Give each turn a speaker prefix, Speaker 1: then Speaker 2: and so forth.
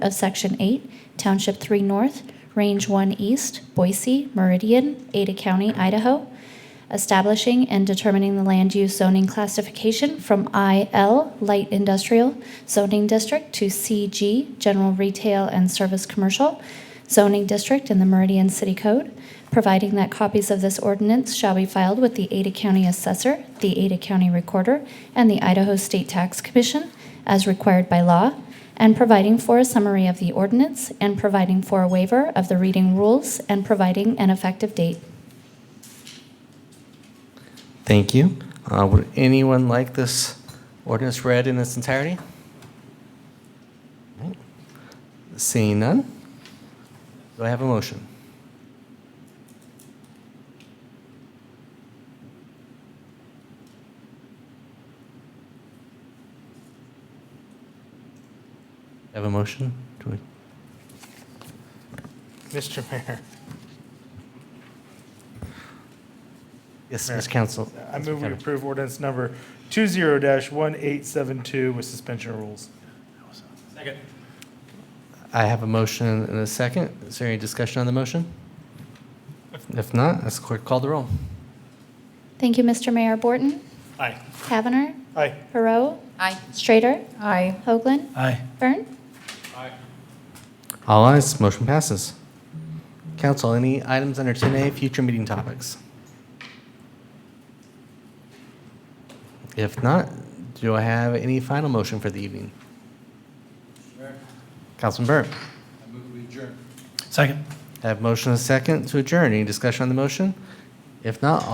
Speaker 1: of Section 8, Township 3 North, Range 1 East, Boise, Meridian, Ada County, Idaho, establishing and determining the land use zoning classification from IL Light Industrial Zoning District to CG General Retail and Service Commercial Zoning District in the Meridian City Code, providing that copies of this ordinance shall be filed with the Ada County Assessor, the Ada County Recorder, and the Idaho State Tax Commission as required by law, and providing for a summary of the ordinance, and providing for a waiver of the reading rules, and providing an effective date.
Speaker 2: Thank you. Uh, Would anyone like this ordinance read in its entirety? Alright. Seeing none, do I have a motion? Have a motion? Do we-
Speaker 3: Mr. Mayor,
Speaker 2: Yes,
Speaker 3: Mayor.
Speaker 2: Ms. Council.
Speaker 3: I move we
Speaker 2: Councilman Kevin.
Speaker 3: approve ordinance number 20-1872 with suspension of rules.
Speaker 2: I have a motion and a second. Is there any discussion on the motion? If not, as clerk call the roll.
Speaker 1: Thank you, Mr. Mayor. Borton?
Speaker 3: Aye.
Speaker 1: Kavanagh?
Speaker 3: Aye.
Speaker 1: Perot?
Speaker 4: Aye.
Speaker 1: Strater?
Speaker 4: Aye.
Speaker 1: Hoagland?
Speaker 3: Aye.
Speaker 1: Byrne?
Speaker 2: All ayes, motion passes. Council, any items under 10A, future meeting topics? If not, do I have any final motion for the evening? Councilman Burt,
Speaker 3: Second.
Speaker 2: I have motion and a second to adjourn. Any discussion on the motion? If not,